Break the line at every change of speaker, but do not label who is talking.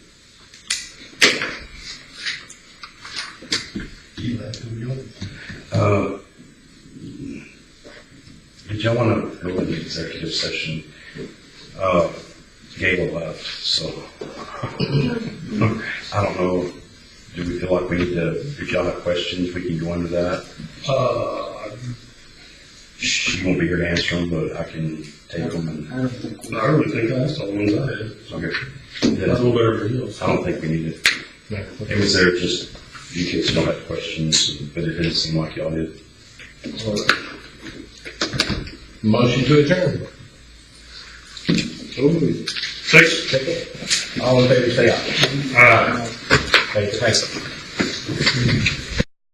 Uh, If y'all want to go into executive session, uh, Gail left, so I don't know, do we feel like we need to, if y'all have questions, we can go into that?
Uh,
She won't be here to answer them, but I can take them and,
I don't think we-
I really think that's the ones I had.
okay.
That's a
Then
little better for you.
I don't think we need it. It was there just, you kids don't have questions, but it didn't seem like y'all did.
Motion to adjourn.
Six.
All in favor, say aye.
All right.
Thank you.